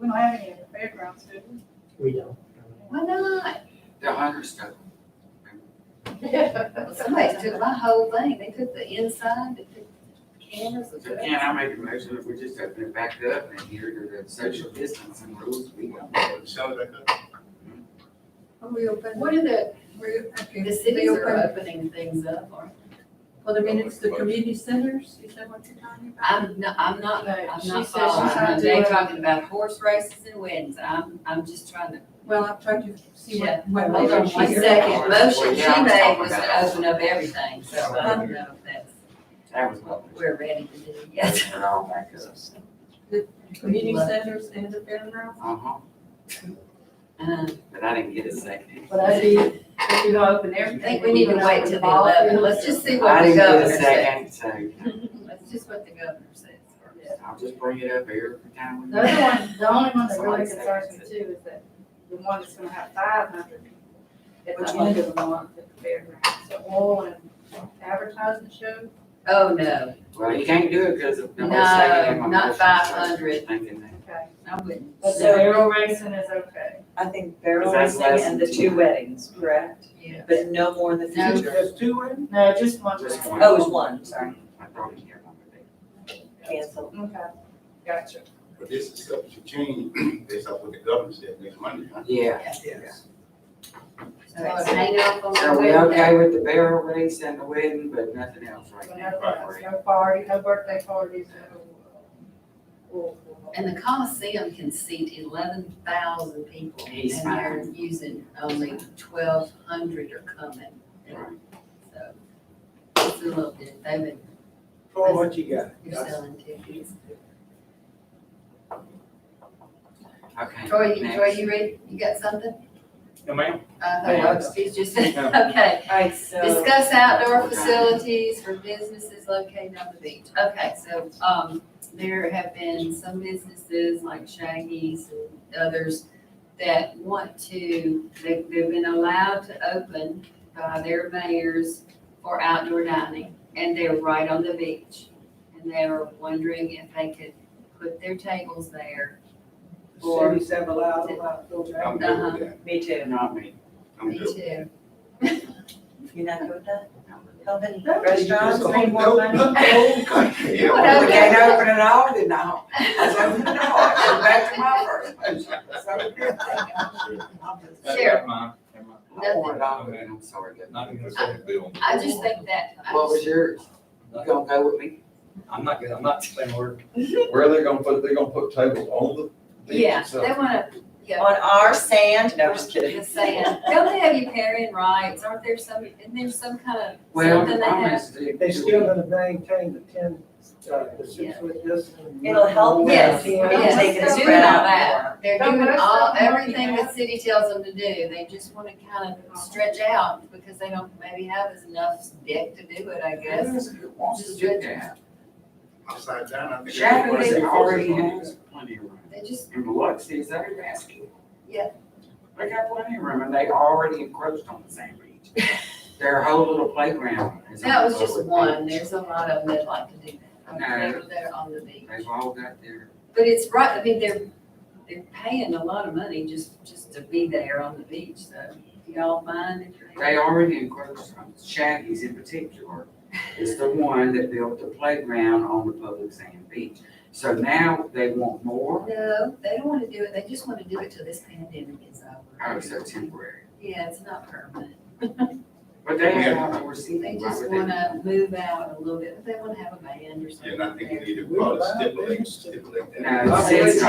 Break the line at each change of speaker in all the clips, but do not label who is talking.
don't have any at the fairgrounds, do we?
We don't.
Why not?
They're hundreds of them.
Somebody took my whole thing. They took the inside, they took the cameras.
So can I make a motion if we just open it back up and adhere to the social distancing rules we want?
Shut it back
We open.
What are the,
we- okay.
the
They
cities are
open-
opening things up, or?
Well, I mean, it's the community centers, is that what you're talking about?
I'm not, I'm not,
No,
I'm not
she said she's
trying
following.
to
They're
do it.
talking about horse races and weddings. I'm, I'm just trying to.
Well, I'm trying to see
Yeah.
what. what
My
motion she made.
second motion she
Well, yeah, I'm
made
talking
was to
about-
open up everything, so I don't know if that's
That was lovely.
what we're ready to do yet.
Open it all back up.
Community centers and the fairgrounds.
Uh-huh,
Uh,
but I didn't get a second.
But I did, if you don't open
I
everything.
think we need to wait till the eleventh. Let's just see what
I
the
didn't get
governor
a
says.
second, so
That's just what the governor says.
Yeah.
I'll just bring it up every time. we-
The other one, the only one that really concerns me too is that the one that's gonna have five hundred people at
Which
the end of the month at the fairgrounds, the oil and advertising show.
Oh, no,
Well, you can't do it because of the
no,
whole second. in my
not
motion, so
five hundred,
Thinking that.
Okay.
I wouldn't.
But the
So-
barrel racing is okay.
I think barrel
Because
racing
that's
and the two weddings, correct?
Yeah.
But no more in the
No.
future.
two women?
No, just one.
Just
round.
one.
Oh, it was one, sorry,
I thought you had one, but they-
canceled.
Okay, gotcha.
But this is subject to change based off what the governor said next Monday, huh?
Yeah.
Yes.
So it's hang up on.
So
the
we
window.
okay with the barrel race and the wedding, but nothing else right
So
now?
no parties, no party, no birthday parties, no.
And the Coliseum can seat eleven thousand people, and
He's
they're using only twelve hundred are coming,
Right.
so. It's a little bit, they've been,
For what you got.
you're selling tickets.
Okay.
Troy, you-
next.
Troy, you read, you got something?
No, ma'am.
Uh,
Yeah.
no, excuse just,
No.
okay.
All right, so
Discuss outdoor facilities for businesses located on the beach. Okay, so, um, there have been some businesses like Shaggy's and others that want to, they, they've been allowed to open by their mayors for outdoor dining, and they're right on the beach. And they were wondering if they could put their tables there. Or-
Cities have allowed, allowed those.
I'm good with that.
me too.
Not me.
I'm
Me
good.
too.
You're not good with that?
Not really.
Helping
That is just
restaurants,
a whole-
need more money?
The whole country. yeah.
What
We can't open it all, then I'll, I'll open it all, Go back to my first. So,
I'll just-
Sure. Never
mind,
I want it all, and I'm sorry. that-
Not even
I just think that, I
What was
just,
yours? You gonna go with me?
I'm not, I'm not saying word. Where are they gonna put, they're gonna put tables on the beach
yeah,
itself?
they wanna, yeah.
On our sand, no, just kidding.
Just saying, don't they have riparian rights, aren't there some, isn't there some kind of,
Well,
Something they
I'm
have.
gonna stick
They
to
still
it.
gonna maintain the ten, uh, the six foot distance.
It'll help
Yes,
us,
yes.
we'll take it
They're
as
doing
spread
all
out
that.
more.
they're
Don't
doing
most
all,
of them already
everything the
have?
city tells them to do, they just wanna kind of stretch out because they don't maybe have as enough deck to do it, I guess.
Who wants to do that?
Upside down, I think.
Shadow
everybody's
they
in
already
focus on
has
this.
plenty of room.
They just,
In Biloxi, is that a basket?
Yeah.
They got plenty of room, and they already encroached on the sand beach. Their whole little playground is. on
no, it's
the
just
public
one,
beach.
there's a lot of them that like to do that,
No.
they're, they're on the beach.
They've all got their,
But it's right, I mean, they're, they're paying a lot of money just, just to be there on the beach, so if y'all mind if they.
they already encroached on, Shaggy's in particular, is the one that built the playground on the public sand beach. So now they want more,
No, they don't wanna do it, they just wanna do it till this pandemic is
oh,
over.
so temporary,
Yeah, it's not permanent.
but they have
Yeah.
outdoor seating.
They
why
just
would they-
wanna move out a little bit, but they wanna have a band or something.
Yeah, and I think you
there.
need to
We
probably
allow
stipulate,
things to-
stipulate that.
No, it's- it's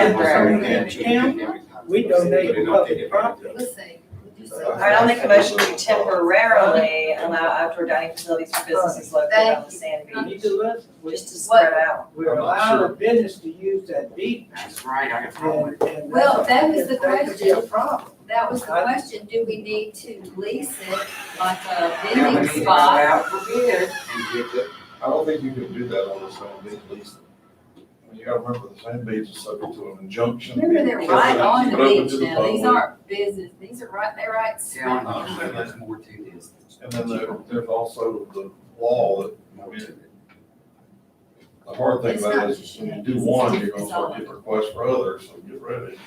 temporary.
We donate public property.
Let's see. We'll do
All
All
something.
right, I'll make a motion to temporarily allow outdoor dining facilities for businesses located on the sand
You
beach,
need to listen. We-
just to spread out.
We're allowing business to use that beach.
That's right, I got a problem with
and- and
Well, that was the
That could be a
question.
problem.
That was the question, do we need to lease it like a
it. Now we
vending
need to go
spot?
out for bid and get the
I don't think you can do that on the sand beach, at least. You gotta remember, the sand beach is subject to an injunction.
Remember, they're right on the
But open
beach
to the
now, these
public.
aren't business, these are right, they're right smack in
town,
the
uh,
middle.
there's more to this.
And then there, there's also the law that,
More to it.
I The hard thing
It's
about
not
it is,
just
when you
Shaggy's,
do
it's
one,
just-
you're gonna
it's all
start
of
getting requests for others, so get ready.